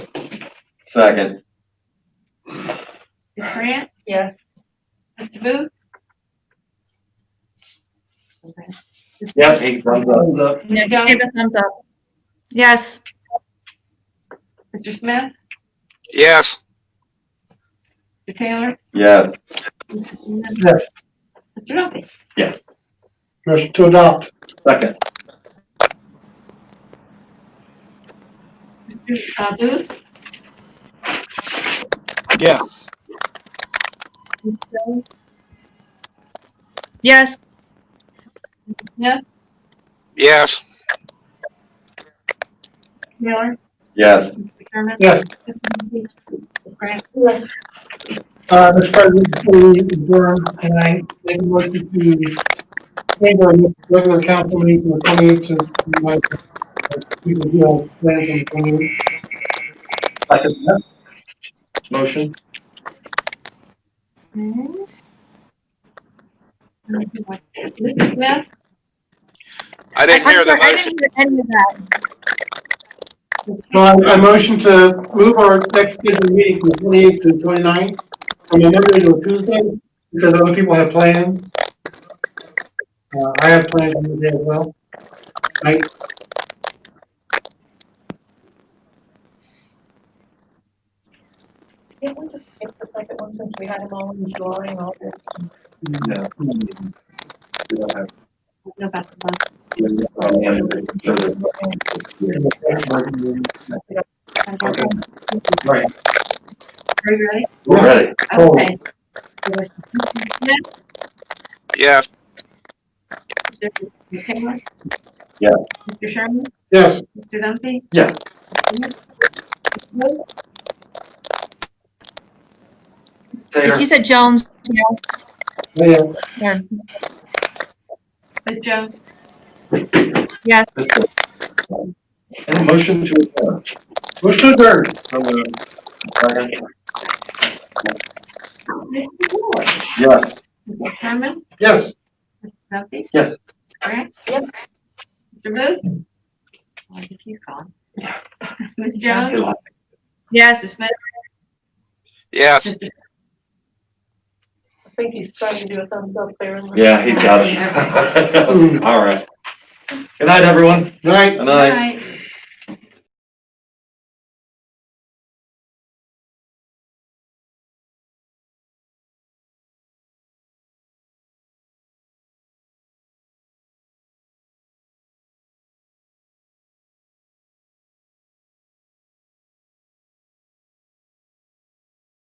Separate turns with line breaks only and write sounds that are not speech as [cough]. Second.
Ms. Grant?
Yes.
Mr. Booth?
Yep, eight thumbs up.
Mr.
No,
Jones?
Give a thumbs up. Yes,
Mr. Smith?
yes,
Mr. Taylor?
Yes.
Yes.
Mr. Duffy?
Motion to adopt.
Second.
Mr. uh, Booth?
yes,
Ms. Jones?
yes,
Smith?
yes,
Taylor?
Yes.
Mr. Sherman?
Yes.
Ms. Grant?
Yes.
Uh, Mr. President, before we adjourn tonight, make a motion to change our next regular council meeting from the twenty-eighth to the ninth. We will do our plans on the 28th.
Second. Motion?
Mr. Smith?
I didn't
I'm
hear the
sorry, I
motion,
didn't hear any of that.
So I, I motion to move our next scheduled meeting from the twenty-eighth to the twenty-ninth, from a Monday to a Tuesday, because other people have plans. Uh, I have plans on the day as well. Right?
Can we just skip the second one since we had them all in the drawing all this?
No. We don't have-
No, that's the one. I'm sorry.
Right.
Are you ready?
We're ready.
Oh.
Okay.
yes,
Mr. Taylor?
Yeah.
Mr. Sherman?
Yes.
Mr. Dumpy?
Yeah.
If
Taylor?
you said Jones, yeah,
Yeah,
yeah,
Ms. Jones?
yes,
And motion to adjourn.
motion to adjourn.
Second.
Mr. Ward?
Yes.
Mr. Sherman?
Yes.
Mr. Dumpy?
Yes.
Grant?
Yes.
Mr. Booth? Oh, I think he's gone. [laughs] Ms. Jones? Mr.
yes.
Smith?
yes.
Mr.
I think he's trying to do a thumbs up there.
[laughs] Yeah, he's got it. All right. Good night, everyone.
All right.
Good night.
Knight.